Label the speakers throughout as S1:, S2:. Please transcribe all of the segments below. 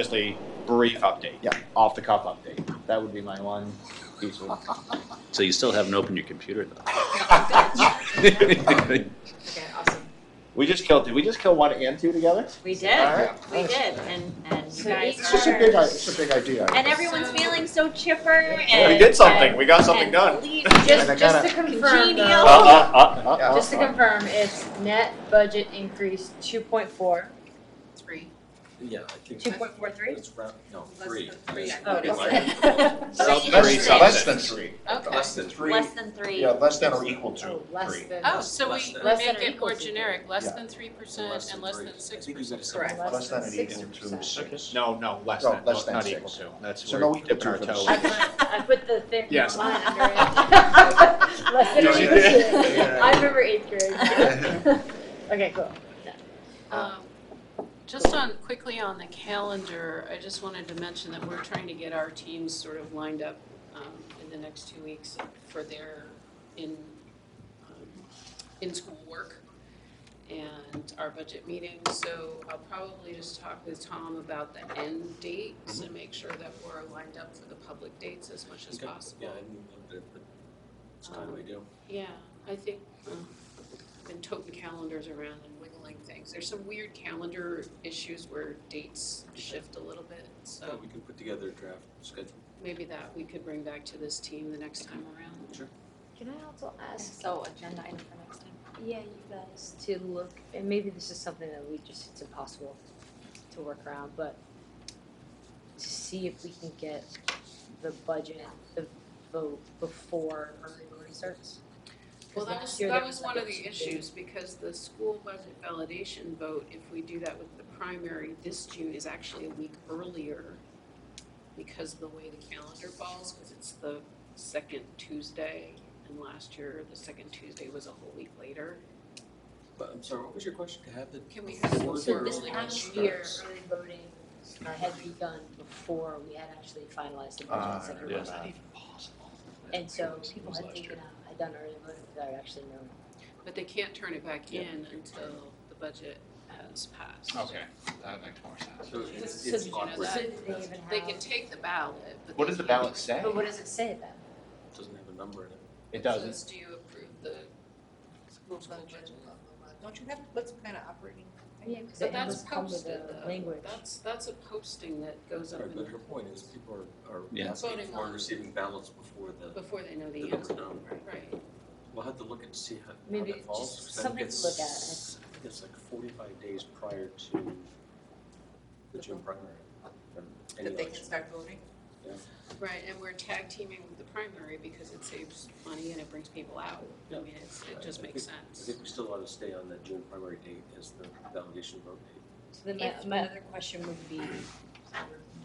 S1: just a brief update.
S2: Yeah.
S1: Off the cuff update. That would be my one piece of.
S3: So you still haven't opened your computer
S1: Okay,
S3: though.
S4: Okay, awesome.
S1: We just killed, did we just kill one and two together?
S5: We
S2: All
S5: did,
S2: right.
S5: we did, and, and you
S4: So each
S2: It's
S5: guys
S2: just a
S5: are,
S2: big, i- it's a big idea.
S5: and everyone's feeling so chipper
S1: Yeah,
S5: and.
S1: we did something. We got
S5: and-
S1: something
S5: and
S1: done.
S5: lead-
S2: And I
S4: Just, just
S2: gotta- Oh.
S4: to confirm
S5: Congenial.
S1: Uh,
S4: though,
S1: uh, uh, uh, uh,
S4: just to confirm, it's net budget increase two point four,
S5: Three.
S6: Yeah, I think.
S4: two point four three?
S6: It's round, no,
S5: Less
S6: three.
S5: than three, I
S6: Yes.
S5: Oh,
S4: Okay.
S5: Less
S1: uh,
S5: than
S1: three
S5: three.
S1: something.
S2: Less than three.
S4: Okay.
S6: Less than three.
S5: Less than three.
S2: Yeah, less than or equal to
S4: Oh, less
S2: three.
S4: than.
S7: Oh, so we
S6: Less than-
S4: Less than
S7: make
S4: or
S7: it more
S4: equal to
S7: generic, less
S2: Yeah.
S7: than three percent and less
S6: three.
S7: than
S6: I
S7: six
S6: think we got
S7: percent.
S6: it.
S4: Correct.
S2: Less than an
S4: six
S2: equal to
S4: percent.
S2: six.
S1: No, no, less
S2: No,
S1: than,
S2: less than
S1: not
S2: six.
S1: equal to. That's,
S2: So
S1: we're
S2: no equal
S1: dipping
S2: to
S1: our
S2: for
S1: toe
S2: the
S1: in.
S4: I
S2: six.
S4: put, I put the thick
S1: Yes.
S4: line under it. Less than
S1: Did
S4: or
S1: you?
S4: equal to.
S2: Yeah.
S4: I remember eighth grade. Okay, cool.
S7: Um, Just on, quickly on the calendar, I just wanted to mention that we're trying to get our teams sort of lined up um, in the next two weeks for their in, um, in-school work and our budget meeting. So I'll probably just talk with Tom about the end dates and make sure that we're lined up for the public dates as much as
S6: Okay.
S7: possible.
S6: Yeah, I knew a little bit, but it's kind of ideal.
S7: Yeah, I think, um, I've been toting calendars around and wiggling things. There's some weird calendar issues where dates shift a little bit,
S6: So
S7: so
S6: we can put together a draft schedule.
S7: maybe that we could bring back to this team the next time around.
S4: Can I also ask
S5: So agenda item for next time.
S4: Yeah, you guys to look, and maybe this is something that we just, it's impossible to work around, but to see if we can get the budget, the vote before early voting starts. 'Cause
S7: Well, that was,
S4: last year
S7: that
S4: there
S7: was
S4: like
S7: one
S4: a
S7: of the
S4: two-day-
S7: issues, because the school budget validation vote, if we do that with the primary this June, is actually a week earlier because of the way the calendar falls, because it's the second Tuesday, and last year, the second Tuesday was a whole week later.
S6: But I'm sorry, what was your question? To have the.
S7: Can we have
S6: before
S4: So
S6: or
S4: this
S6: early
S4: past
S6: starts?
S4: year, early voting uh, had begun before we had actually finalized the budget.
S2: Ah,
S4: so there
S2: yeah.
S4: was- And so people had taken out, I'd done early voting without actually knowing.
S7: But they can't turn it back
S6: Yeah.
S7: in until the budget has passed.
S1: Okay, that makes more sense.
S6: So
S4: So-
S6: it's,
S4: so
S6: it's
S4: did you
S7: know
S6: awkward.
S7: that?
S4: So did they even
S7: They
S4: have-
S7: can take the ballot, but
S1: What
S7: they
S1: does the
S7: can't-
S1: ballot say?
S4: But what does it say then?
S6: It Doesn't have a number in it.
S1: It
S7: It
S1: doesn't.
S7: says, do you approve the school budget?
S8: Don't you have, what's kind of operating?
S5: Oh,
S4: Yeah, because
S7: But
S4: it
S7: that's
S4: has come with
S7: posted
S4: the
S7: though,
S4: language.
S7: that's, that's a posting that goes up
S6: Right, but
S7: in-
S6: her point is people are, are
S3: Yeah.
S6: asking
S7: Voting
S6: for
S7: on-
S6: and receiving ballots before the,
S7: before they know
S6: the
S7: the
S6: number
S7: answer,
S6: known.
S7: right?
S6: We'll have to look and see how, how
S4: Maybe
S6: that falls.
S4: just
S6: 'cause I think
S4: something to
S6: it's-
S4: look at.
S6: I think It's like forty-five days prior to the June primary. from any
S8: That they can
S6: election.
S8: start voting?
S7: Right, and we're tag teaming with the primary because it saves money and it brings people out. I
S6: Yeah.
S7: mean, it's, it just
S6: I
S7: makes
S6: I
S7: sense.
S6: think we still ought to stay on that June primary date as the validation vote date.
S4: So then
S5: If-
S4: my, my other question would be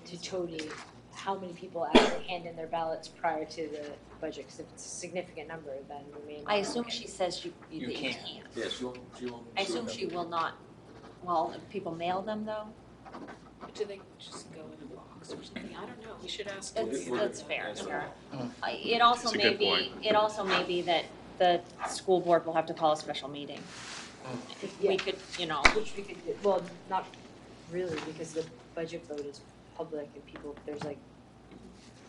S4: to Tody, how many people actually hand in their ballots prior to the budget? Because if it's a significant number, then we may.
S5: I
S4: not-
S5: assume she says you,
S1: You
S5: you that you
S1: can't.
S5: can't.
S6: Yes, you won't, you won't.
S5: I assume she will not, well, if people mail them though,
S7: Do they just go in a box or something? I don't know, we should ask.
S5: that's,
S6: We'll get-
S5: that's fair,
S6: that's
S5: sure.
S2: Mm.
S5: I- It also
S3: It's a
S5: may
S3: good
S5: be, it also may be that the school board will have to call a special meeting.
S4: Yeah.
S5: We could, you know,
S4: Which we could, do- well, not really, because the budget vote is public and people, there's like,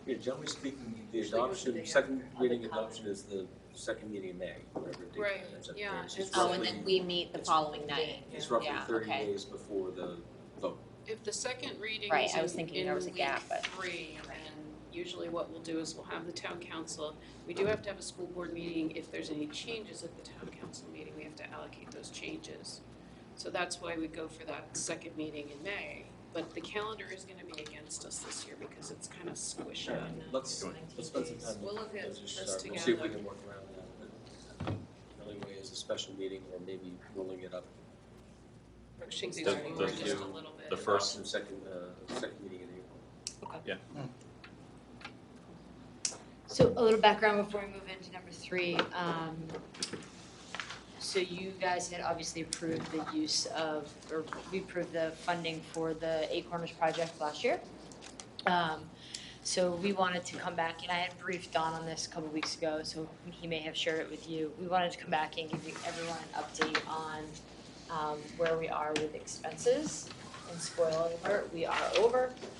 S6: Yeah, generally speaking, the
S8: Usually
S6: adoption,
S8: usually
S6: second
S4: the
S6: reading
S4: common.
S6: adoption is the second meeting in May, whatever date.
S7: Right,
S6: that ends up
S7: yeah,
S6: being. So it's
S7: it's-
S5: oh, and
S6: roughly-
S5: then we meet the following night.
S6: It's roughly
S5: yeah,
S6: thirty
S5: okay.
S6: days before the vote.
S7: If the second reading
S5: Right,
S7: is
S5: I was
S7: in,
S5: thinking there was a
S7: in week
S5: gap, but-
S7: three, and usually what we'll do is we'll have the town council. We do have to have a school board meeting. If there's any changes at the town council meeting, we have to allocate those changes. So that's why we go for that second meeting in May. But the calendar is gonna be against us this year because it's kind of squished out.
S6: Let's, let's spend some time.
S7: We'll look at
S6: as we
S7: this
S6: start. We'll see if we
S7: together.
S6: can work around that. but The only way is a special meeting or maybe rolling it up.
S7: Pushing things
S3: The-
S7: forward
S3: the-
S7: just a little bit.
S3: the first-
S6: Adoption, Second, uh, second meeting in April.
S4: So a little background before we move into number three. Um, So you guys had obviously approved the use of, or we approved the funding for the Eight Corners project last year. Um, So we wanted to come back, and I had briefed Don on this a couple weeks ago, so he may have shared it with you. We wanted to come back and give you everyone an update on um, where we are with expenses and and spoiler alert, we are over.